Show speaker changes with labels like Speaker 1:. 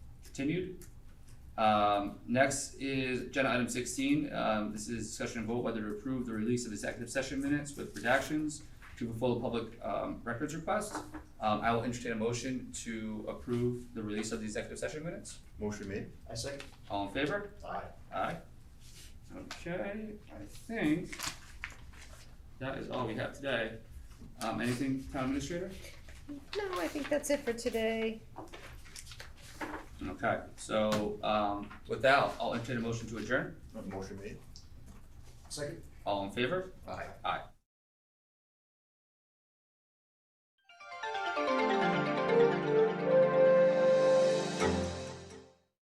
Speaker 1: continued. Um, next is agenda item sixteen, um, this is discussion and vote whether to approve the release of executive session minutes with redactions to fulfill the public, um, records request. Um, I will entertain a motion to approve the release of the executive session minutes.
Speaker 2: Motion made.
Speaker 3: I second.
Speaker 1: All in favor?
Speaker 3: Aye.
Speaker 1: Aye. Okay, I think that is all we have today. Um, anything, town administrator?
Speaker 4: No, I think that's it for today.
Speaker 1: Okay, so, um, with that, I'll entertain a motion to adjourn.
Speaker 2: Motion made.
Speaker 3: Second.
Speaker 1: All in favor?
Speaker 2: Aye.
Speaker 1: Aye.